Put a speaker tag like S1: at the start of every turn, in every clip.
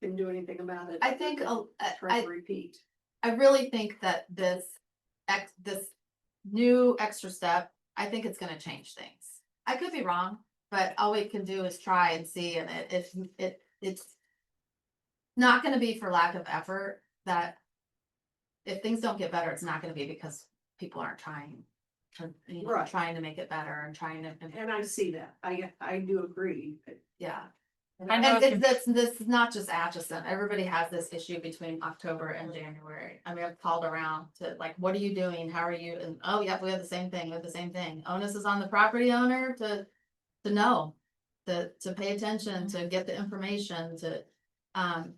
S1: can do anything about it.
S2: I think, a- I,
S1: Try
S2: I-
S1: to repeat.
S2: I really think that this ex, this new extra step, I think it's gonna change things. I could be wrong, but all we can do is try and see, and it, if, it, it's not gonna be for lack of effort, that if things don't get better, it's not gonna be because people aren't trying, to- you know,
S1: Right.
S2: trying to make it better and trying to,
S1: And I see that. I, I do agree.
S2: yeah.
S3: I know
S2: And
S3: if
S2: it's, this, this is not just Atchison, everybody has this issue between October and January. I mean, I've called around to like, what are you doing? How are you? And, oh, yep, we have the same thing, we have the same thing. Onus is on the property owner to, to know. To, to pay attention,
S3: Mm-hmm.
S2: to get the information, to, um.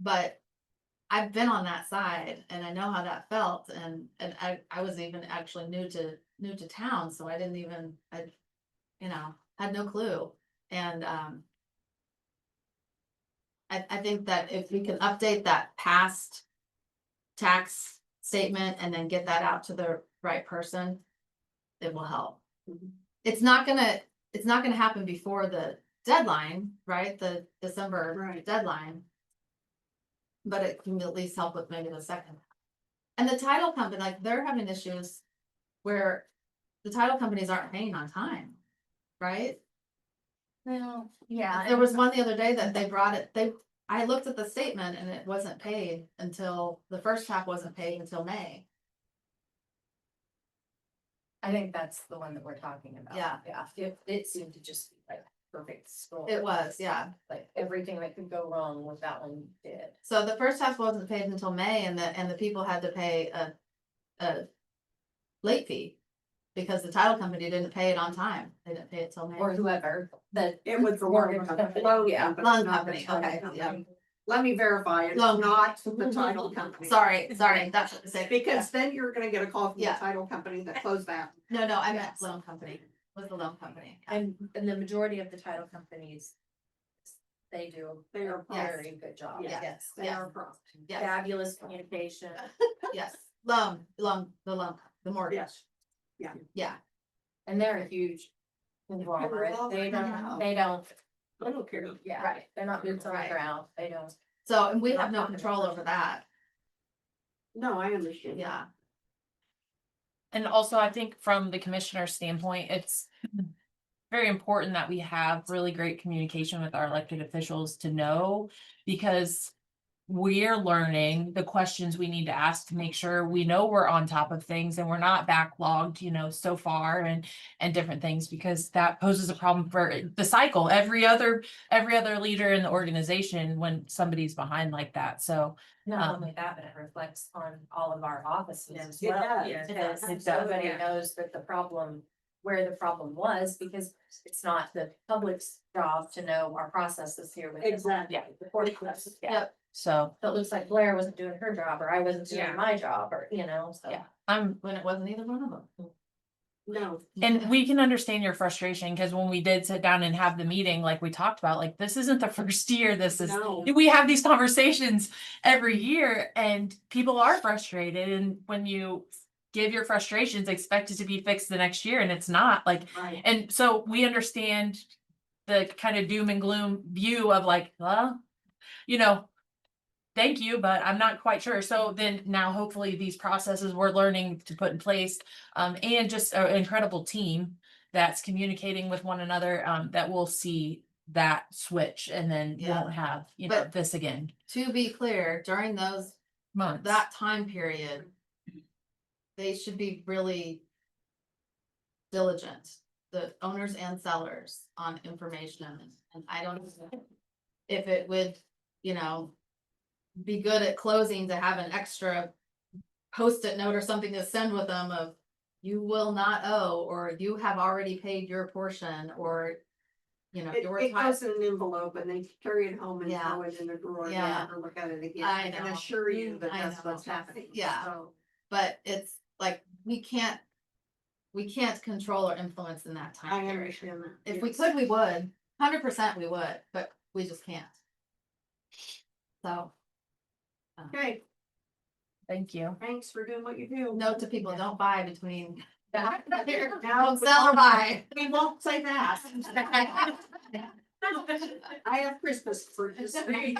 S2: But I've been on that side and I know how that felt and, and I, I was even actually new to, new to town, so I didn't even, I. You know, had no clue and, um. I, I think that if we can update that past tax statement and then get that out to the right person, it will help.
S1: Mhm.
S2: It's not gonna, it's not gonna happen before the deadline, right? The December
S1: Right.
S2: deadline. But it can at least help with maybe the second. And the title company, like, they're having issues where the title companies aren't paying on time, right?
S3: Well, yeah.
S2: There was one the other day that they brought it, they, I looked at the statement and it wasn't paid until, the first half wasn't paid until May.
S3: I think that's the one that we're talking about.
S2: Yeah.
S3: Yeah, it, it seemed to just be like perfect score.
S2: It was, yeah.
S3: Like everything that could go wrong with that one did.
S2: So the first half wasn't paid until May and the, and the people had to pay a, a late fee. Because the title company didn't pay it on time. They didn't pay it till May.
S3: Or whoever, that.
S1: It was the
S3: Mortgage
S1: loan company.
S3: company.
S1: Loan
S3: Yeah.
S1: company,
S2: Loan
S1: not the
S2: company,
S1: title
S2: okay,
S1: company.
S2: yeah.
S1: Let me verify, it's
S2: Loan Mm-hmm.
S1: not the title company.
S2: Sorry, sorry, that's what I said.
S1: Because then you're gonna get a call from the
S2: Yeah.
S1: title company that closed that.
S2: No, no, I meant
S3: Yes.
S2: loan company, was the loan company. yeah.
S3: And, and the majority of the title companies, they do
S1: They are
S3: a
S2: Yes.
S3: very good job.
S1: Yes.
S2: Yes,
S1: They
S2: yes,
S1: are prompt.
S2: yes,
S3: Fabulous communication.
S2: yes. Loan, loan, the loan, the mortgage,
S1: Yes.
S2: yeah.
S3: And they're a huge conglomerate. They don't, they
S4: Um,
S3: don't,
S1: I don't care.
S3: yeah,
S2: Right.
S3: they're not boots on the
S2: Right.
S3: ground. They don't.
S2: So, and we have no control over that,
S1: No, I understand.
S2: yeah.
S4: And also, I think from the commissioner's standpoint, it's very important that we have really great communication with our elected officials to know because we're learning the questions we need to ask to make sure we know we're on top of things and we're not backlogged, you know, so far and and different things because that poses a problem for the cycle. Every other every other leader in the organization when somebody's behind like that. So
S3: Not
S4: Um,
S3: only that, but it reflects on all of our offices as
S1: It
S3: well.
S1: does.
S2: It
S3: Because
S2: does.
S4: It does,
S3: everybody
S1: yeah.
S3: knows that the problem, where the problem was, because it's not the public's job to know our processes here with. the-
S1: Exactly.
S3: Yeah, the court process, yeah.
S2: Yep.
S4: so
S3: So it looks like Blair wasn't doing her job, or I wasn't
S1: Yeah.
S3: doing my job, or, you know, so.
S4: Yeah. I'm
S2: when it wasn't either one of them.
S1: No,
S4: um, And we can understand your frustration because when we did sit down and have the meeting, like we talked about, like this isn't the first year, this is.
S1: no.
S4: We have these conversations every year and people are frustrated and when you give your frustrations, expect it to be fixed the next year and it's not like.
S1: Right.
S4: And so we understand the kind of doom and gloom view of like, well, you know, thank you, but I'm not quite sure. So then now hopefully these processes we're learning to put in place, um, and just an incredible team that's communicating with one another, um, that will see that switch and then
S2: Yeah.
S4: won't have, you know,
S2: But-
S4: this again.
S2: To be clear, during those,
S4: Months.
S2: that time period, they should be really diligent, the owners and sellers on information, and I don't know if it would, you know, be good at closing to have an extra post-it note or something to send with them of you will not owe, or you have already paid your portion, or, you know,
S1: It,
S2: your
S1: it
S2: time.
S1: goes in an envelope and they carry it home and
S2: Yeah.
S1: throw it in a drawer and
S2: Yeah.
S1: never look at it again.
S2: I
S1: can
S2: know. Mm,
S1: assure you that
S2: I
S1: that's
S2: know.
S1: what's happening.
S2: Yeah.
S1: So,
S2: but it's like, we can't. We can't control or influence in that
S1: I
S2: time period.
S1: understand that.
S2: If we
S1: yes.
S2: could, we would, hundred percent we would, but we just can't. So, uh,
S1: Okay,
S4: Thank you.
S1: thanks for doing what you do.
S2: note to people, don't buy between,
S3: Yeah.
S1: Now,
S2: don't sell or buy.
S1: we won't say that. I have Christmas for this week.